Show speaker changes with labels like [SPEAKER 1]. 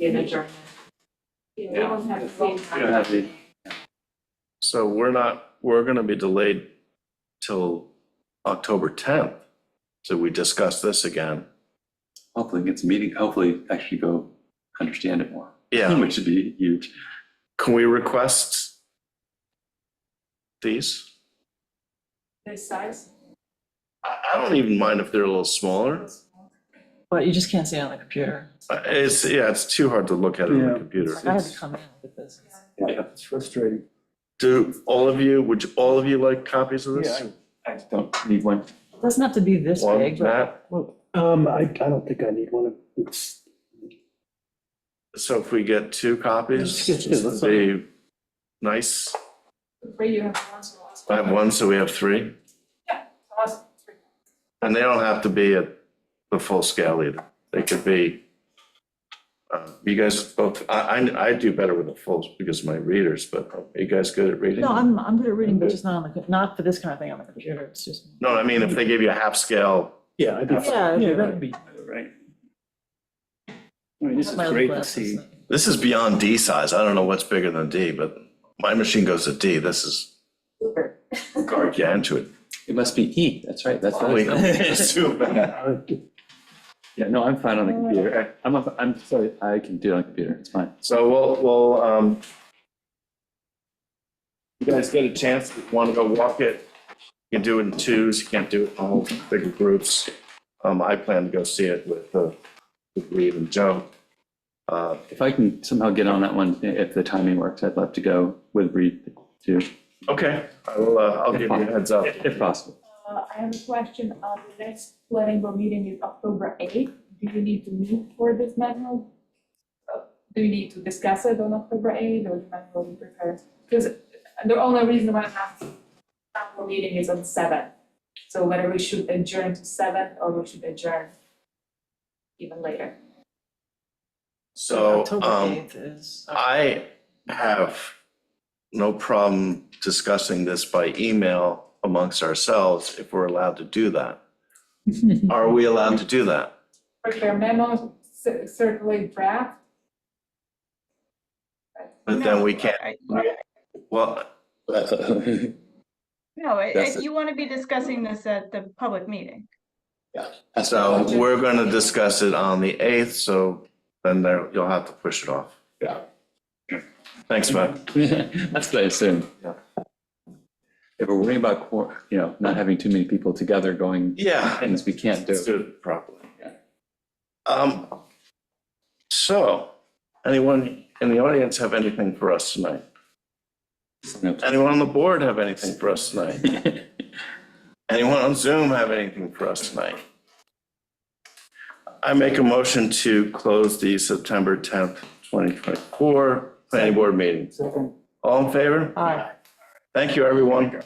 [SPEAKER 1] an adjournment. Yeah, we don't have to vote.
[SPEAKER 2] We don't have the- So we're not, we're gonna be delayed till October tenth, so we discuss this again.
[SPEAKER 3] Hopefully it's meeting, hopefully actually go understand it more,
[SPEAKER 2] Yeah,
[SPEAKER 3] which would be huge.
[SPEAKER 2] Hmm. can we request these?
[SPEAKER 1] This size?
[SPEAKER 2] I, I don't even mind if they're a little smaller.
[SPEAKER 4] But you just can't see it on the computer.
[SPEAKER 2] Uh, It's, yeah, it's too hard to look at it on the
[SPEAKER 5] Yeah.
[SPEAKER 2] computer.
[SPEAKER 4] I had to come in with this.
[SPEAKER 3] Yeah.
[SPEAKER 5] It's frustrating.
[SPEAKER 2] Do all of you, would you- all of you like copies of this?
[SPEAKER 3] I just don't need one.
[SPEAKER 4] It Doesn't have to be this
[SPEAKER 2] One,
[SPEAKER 4] big, but
[SPEAKER 2] Matt?
[SPEAKER 5] Um, I, I don't think I need one of, it's,
[SPEAKER 2] So if we get two copies,
[SPEAKER 5] Yes, yes, that's fine.
[SPEAKER 2] be nice.
[SPEAKER 1] Three, you have one, so I'll ask.
[SPEAKER 2] I have one, so we have three.
[SPEAKER 1] So I'll ask three.
[SPEAKER 2] And they don't have to be at the full scale either. They could be, uh, you guys both, I, I, I do better with the fulls because of my readers, but are you guys good at reading?
[SPEAKER 4] no, I'm, I'm good at reading, but just not on the, not for this kind of thing on the computer. It's just.
[SPEAKER 2] No, I mean, if they gave you a half scale,
[SPEAKER 5] yeah, I'd be.
[SPEAKER 4] Yeah, it'd be
[SPEAKER 5] that'd be.
[SPEAKER 3] Right. I mean, this is
[SPEAKER 4] my other
[SPEAKER 3] great to
[SPEAKER 4] glasses,
[SPEAKER 3] see.
[SPEAKER 4] like-
[SPEAKER 2] this is beyond D size. I don't know what's bigger than D, but my machine goes to D. This is,
[SPEAKER 1] Uber.
[SPEAKER 2] guard you into it.
[SPEAKER 3] It must be E, that's right, that's what
[SPEAKER 2] Wait,
[SPEAKER 3] I
[SPEAKER 2] it's
[SPEAKER 3] said.
[SPEAKER 2] too bad.
[SPEAKER 3] Yeah, no, I'm fine on the computer. I- I'm, a- I'm sorry, I can do it on the computer, it's fine.
[SPEAKER 2] So we'll, we'll, um, you guys get a chance, want to go walk it, you can do it in twos, you can't do it in all bigger groups. Um, I plan to go see it with, uh, with Reed and Joe. Uh,
[SPEAKER 3] If I can somehow get on that one, i- if the timing works, I'd love to go with Reed too,
[SPEAKER 2] okay, I'll, uh, I'll give you a heads up.
[SPEAKER 3] if if possible.
[SPEAKER 1] Uh, I have a question, uh, the next planning board meeting is October eighth, do you need to meet for this manual? Uh, Do you need to discuss it on October eighth, or the manual will be prepared? Because the only reason why I'm asking, planning board meeting is on seven, so whether we should adjourn to seven, or we should adjourn even later.
[SPEAKER 2] So,
[SPEAKER 4] October
[SPEAKER 2] um,
[SPEAKER 4] 8th is.
[SPEAKER 2] I have no problem discussing this by email amongst ourselves if we're allowed to do that. Are we allowed to do that?
[SPEAKER 1] Prepare memos, cir- circulate draft,
[SPEAKER 2] But then we can't,
[SPEAKER 6] I-
[SPEAKER 2] well,
[SPEAKER 5] Uh,
[SPEAKER 6] No, i-
[SPEAKER 3] That's
[SPEAKER 6] if
[SPEAKER 3] it.
[SPEAKER 6] you want to be discussing this at the public meeting.
[SPEAKER 2] So we're gonna discuss it on the eighth, so then there, you'll have to push it off.
[SPEAKER 3] Yeah.
[SPEAKER 2] Thanks, Matt.
[SPEAKER 3] That's what I assume.
[SPEAKER 2] Yeah.
[SPEAKER 3] If we're worrying about, quor- you know, not having too many people together going
[SPEAKER 2] Yeah.
[SPEAKER 3] things we can't do.
[SPEAKER 2] Let's do it properly. Um, so, anyone in the audience have anything for us tonight? Anyone on the board have anything for us tonight? Anyone on Zoom have anything for us tonight? I make a motion to close the September tenth, twenty twenty-four planning board meeting. All in favor?
[SPEAKER 4] Aye.
[SPEAKER 2] Thank you, everyone.